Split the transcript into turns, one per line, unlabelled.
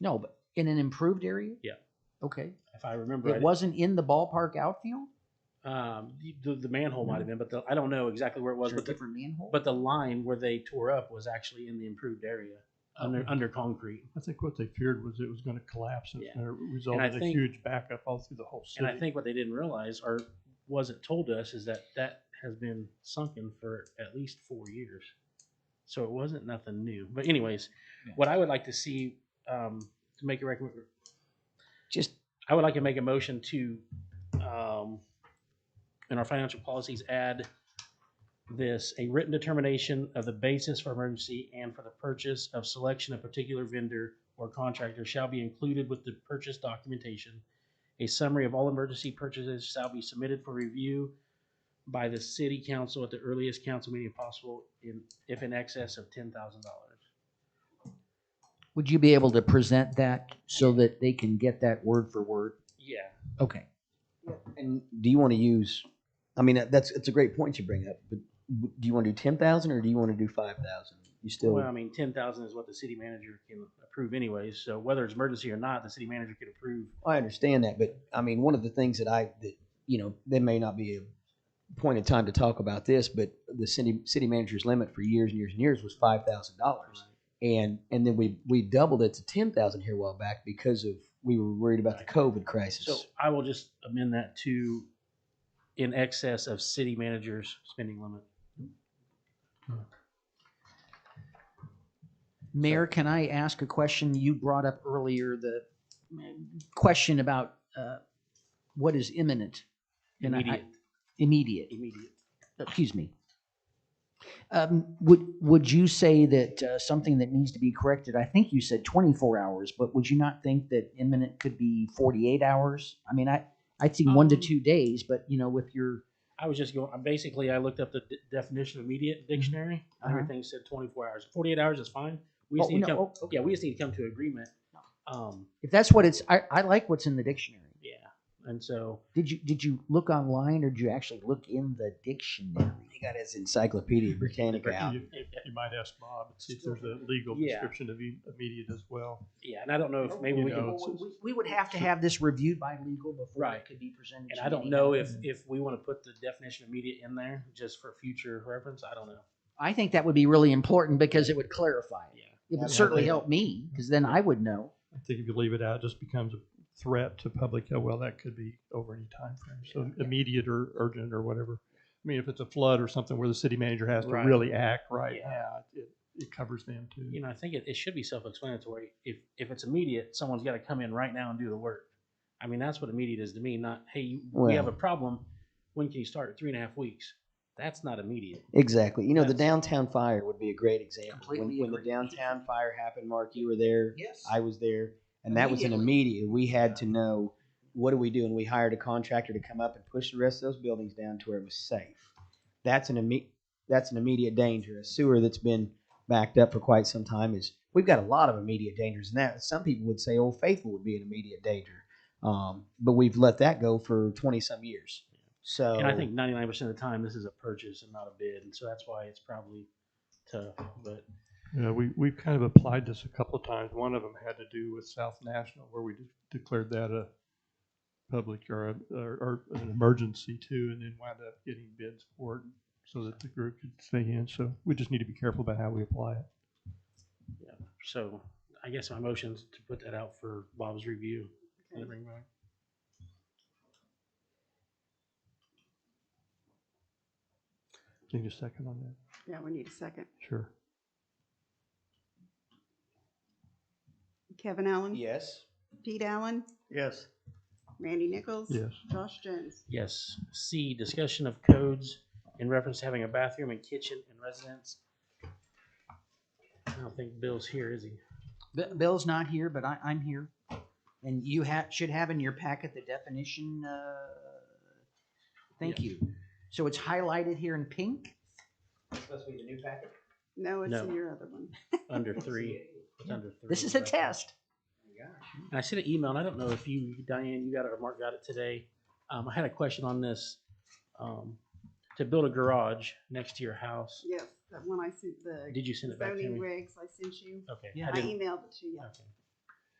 No, but in an improved area?
Yeah.
Okay.
if I remember.
It
right.
wasn't in the ballpark outfield?
Um, the, the manhole might have been, but the, I don't know exactly where it was.
Was it a
But the,
different manhole?
but the line where they tore up was actually in the improved area under under concrete.
I think what they feared was it was going to collapse and
Yeah.
it resulted in a
think-
huge backup all through the whole
And
city.
I think what they didn't realize or wasn't told to us is that that has been sunken for at least four years. So it wasn't nothing new. But anyways,
Yeah.
what I would like to see um, to make a recommend,
Just,
I would like to make a motion to, um, in our financial policies, add this, a written determination of the basis for emergency and for the purchase of selection of particular vendor or contractor shall be included with the purchase documentation. A summary of all emergency purchases shall be submitted for review by the city council at the earliest council meeting possible in, if in excess of ten thousand dollars.
would you be able to present that so that they can get that word for word?
Yeah.
Okay.
And do you want to use? I mean, that- that's it's a great point you bring up. But w- do you want to do ten thousand or do you want to do five thousand? You still
Well, I mean, ten thousand is what the city manager can approve anyways, so whether it's emergency or not, the city manager could approve.
I understand that, but I mean, one of the things that I, that, you know, there may not be a point in time to talk about this, but the city, city manager's limit for years and years and years was five thousand dollars. And, and then we, we doubled it to ten thousand here a while back because of, we were worried about the COVID
So
crisis.
I will just amend that to in excess of city manager's spending limit.
Mayor, can I ask a question? You brought up earlier the mm, question about uh, what is imminent? And I- I-
Immediate,
Immediate.
immediate.
excuse me. Um, would, would you say that uh, something that needs to be corrected, I think you said 24 hours, but would you not think that imminent could be 48 hours? I mean, I, I'd see one to
Um,
two days, but you know, with your,
I was just going, I basically, I looked up the de- definition of immediate dictionary.
Uh-huh.
Everything said twenty-four hours. Forty-eight hours is fine. We
Oh,
just need to
no,
come,
oh, okay.
yeah, we just need to come to agreement. Um,
if that's what it's, I, I like what's in the dictionary.
yeah, and so,
Did you, did you look online or did you actually look in the dictionary?
He got his Encyclopedia Britannica out.
You, you might ask Bob and see if there's a legal
Yeah.
description of im- immediate as well.
yeah, and I don't know if maybe
You
Oh, we
know,
can,
it's-
Oh, We- We would have to have this reviewed by legal before
Right.
it could be presented.
And
to
I don't
any
know
other-
if, if we want to put the definition of immediate in there just for future reference. I don't know.
I think that would be really important because it would clarify it.
Yeah.
It
Yeah,
would certainly
think-
help me, because then I would know.
I think if you leave it out, it just becomes a threat to public. health. Well, that could be over any time frame. So immediate or urgent or whatever. I mean, if it's a flood or something where the city manager has to
Right.
really act right
Yeah.
now, it, it covers them too.
You know, I think it, it should be self-explanatory. If, if it's immediate, someone's got to come in right now and do the work. I mean, that's what immediate is to me, not, hey, you- we have a
Well-
problem. When can you start? Three and a half weeks. That's not immediate.
Exactly. You know, the
That's-
downtown fire would be a great example.
Completely
When, when the
agree.
downtown fire happened, Mark, you were there.
Yes.
I was there, and that was an immediate. We had to know what do we do, and we hired a contractor to come up and push the rest of those buildings down to where it was safe. That's an immediate. That's an immediate danger. A sewer that's been backed up for quite some time is. We've got a lot of immediate dangers, and that some people would say Old Faithful would be an immediate danger, um, but we've let that go for twenty some years. So,
And I think ninety-nine percent of the time, this is a purchase and not a bid. And so that's why it's probably tough, but
Yeah, we, we've kind of applied this a couple of times. One of them had to do with South National where we de- declared that a public or, a- or, or an emergency too, and then wound up getting bids for it so that the group could stay in. So we just need to be careful about how we apply it.
yeah. So I guess my motion's to put that out for Bob's review. and bring back.
Can you second on that?
Yeah, we need a second.
Sure.
Kevin Allen?
yes.
Pete Allen?
Yes.
Randy Nichols?
Yes.
Josh Jones?
Yes. C, discussion of codes in reference to having a bathroom and kitchen in residence. I don't think Bill's here, is he?
B- Bill's not here, but I, I'm here. And you ha- should have in your packet the definition, uh, thank you. So it's highlighted here in pink.
Supposed to be the new packet.
No, it's in
No.
your other one.
Under three. It's under three.
This is a
right?
test.
And I sent an email, and I don't know if you, Diane, you got it or Mark got it today. Um, I had a question on this. Um, to build a garage next to your house,
Yes, that one I sent the
did you send it back to
zoning
me?
regs I sent you.
Okay.
Yeah.
I
I
didn't,
emailed it to you.
okay.